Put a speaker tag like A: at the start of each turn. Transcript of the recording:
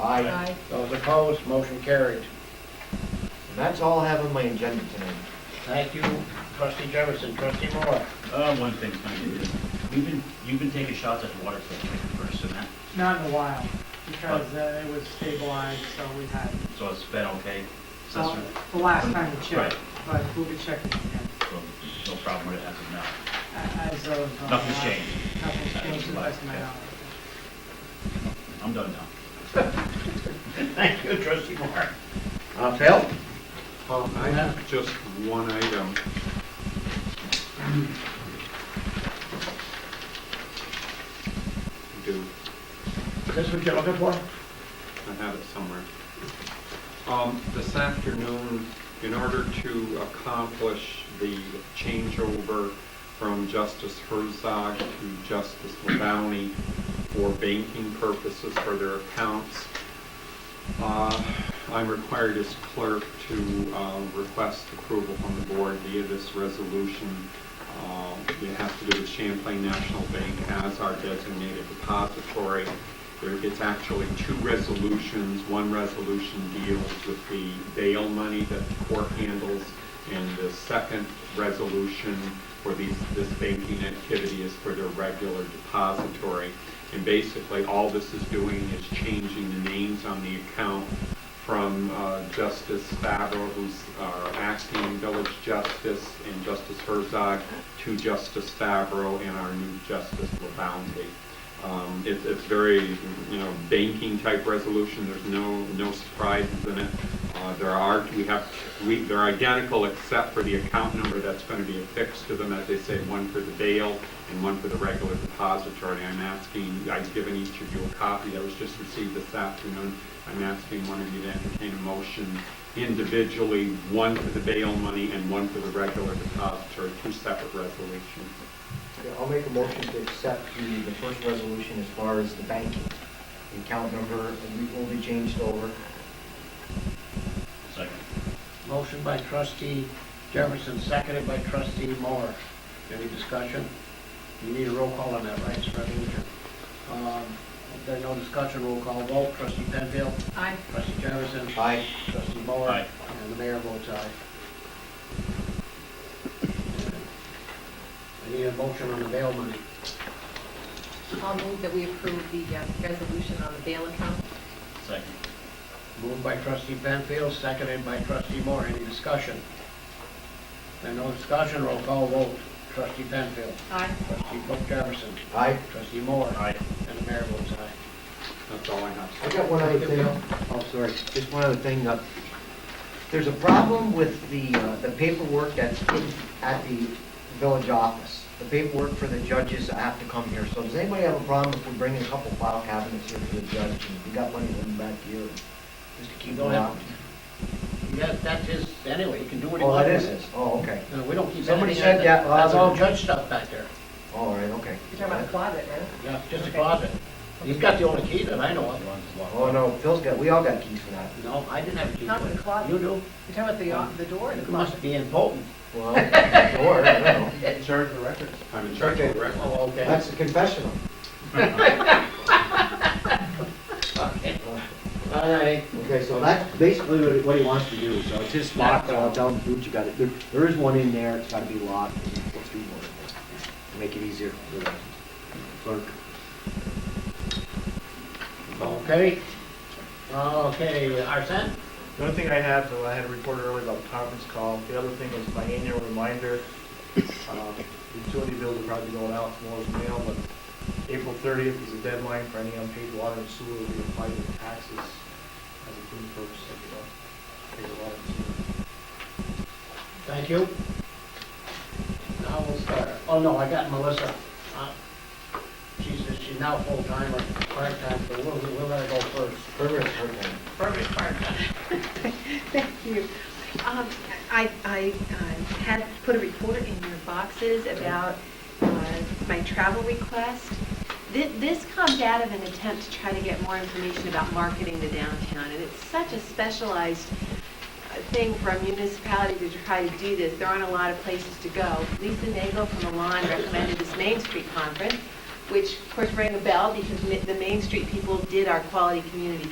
A: Aye.
B: Those opposed, motion carried.
C: And that's all I have on my agenda tonight.
B: Thank you, trustee Jefferson, trustee Moore.
D: Uh, one thing, kind of, you've been, you've been taking shots at the water filtration first, and that,
E: Not in a while, because uh, it was stabilized, so we had,
D: so it's been okay?
E: well,
D: Assessor,
E: the last time we checked,
D: Right.
E: but we'll be checking again.
D: so no problem with it as of now.
E: A- As of. uh,
D: Nothing's changed.
E: Nothing's changed, as best of my
D: Okay.
E: knowledge.
D: I'm done now.
B: Thank you, trustee Moore. Uh, Phil?
F: Um, I have just one item. Do,
B: Is this what you're looking for?
F: I have it somewhere. Um, this afternoon, in order to accomplish the changeover from Justice Herzog to Justice Labounty for banking purposes for their accounts, Uh, I'm required as clerk to uh, request approval from the board via this resolution. Uh, It has to do with Champlain National Bank as our designated depository. There- It's actually two resolutions. One resolution deals with the bail money that the court handles, and the second resolution for these, this banking activity is for their regular depository. And basically, all this is doing is changing the names on the account from uh, Justice Favreau, who's our acting village justice, and Justice Herzog, to Justice Favreau and our new Justice LaBounty. Um, It's, it's very, you know, banking-type resolution, there's no, no surprises in it. Uh, There are, we have, we, they're identical except for the account number that's going to be affixed to them, as they say, one for the bail and one for the regular depository. I'm asking, I've given each of you a copy that was just received this afternoon. I'm asking one of you to entertain a motion individually, one for the bail money and one for the regular depository, two separate resolutions.
C: Yeah, I'll make a motion to accept the, the first resolution as far as the banking. The account number will be changed over.
D: Second.
B: Motion by trustee Jefferson, seconded by trustee Moore. Any discussion? You need a roll call on that, right, Mr. Evinger? Um, If there's no discussion, roll call vote, trustee Penfield,
A: Aye.
B: trustee Jefferson,
C: Aye.
B: trustee Moore.
D: Aye.
B: And the mayor votes aye. I need a motion on the bail money.
A: I'll move that we approve the uh, resolution on the bail account.
D: Second.
B: Moved by trustee Penfield, seconded by trustee Moore. Any discussion? There's no discussion, roll call vote, trustee Penfield,
A: Aye.
B: trustee Brooke Jefferson,
C: Aye.
B: trustee Moore.
D: Aye.
B: And the mayor votes aye.
F: That's all I have.
C: I got one other thing. Oh, sorry, just one other thing. uh, There's a problem with the, uh, the paperwork that's in, at the village office. The paperwork for the judges have to come here. So does anybody have a problem if we bring in a couple file cabinets here for the judge? and We got money to them back here, just to keep
B: Don't
C: them
B: have-
C: out.
B: Yes, that's his, anyway, you can do what he
C: Oh,
B: wants.
C: that is his, oh, okay.
B: No, we don't keep.
C: Somebody
B: anything out
C: said
B: there.
C: that last
B: That's all
C: week.
B: judge stuff back there.
C: All right, okay.
A: You're talking about a closet, right?
B: Yeah, just a
A: Okay.
B: closet. He's got the only key that I know of.
D: Everyone's locked.
C: Oh, no, Phil's got, we all got keys for that.
B: No, I didn't have a key.
A: Not with a closet.
B: You do.
A: You're talking about the, uh, the door in the
B: You
A: closet.
B: must be in Bolton.
C: Well, or, I don't know.
B: Serve the record.
F: I'm in charge of the record.
B: Oh, okay.
C: That's the confessional.
B: All right.
C: Okay, so that's basically what he- what he wants to do, so it's just locked, and I'll tell him, dude, you got it, there, there is one in there, it's gotta be locked, and let's do one in there. Make it easier for the clerk.
B: Okay. Okay, Arson?
G: The only thing I have, though, I had a report earlier about the conference call. The other thing was my annual reminder, uh, utility bills will probably be going out tomorrow as mail, but April 30th is the deadline for any unpaid water and sewer to be applied to taxes as a clean purchase, if you don't pay your water and sewer.
B: Thank you. Now we'll start. Oh, no, I got Melissa. Uh, She's, she's now full-time or part-time, but we'll, we'll let her go first.
C: Perfect, perfect.
B: Perfect part-time.
A: Thank you. Um, I, I um, had put a report in your boxes about uh, my travel request. Thi- This comes out of an attempt to try to get more information about marketing the downtown, and it's such a specialized uh, thing for a municipality to try to do this. There aren't a lot of places to go. Lisa Nagel from Milan recommended this Main Street Conference, which of course rang a bell because ma- the Main Street people did our quality community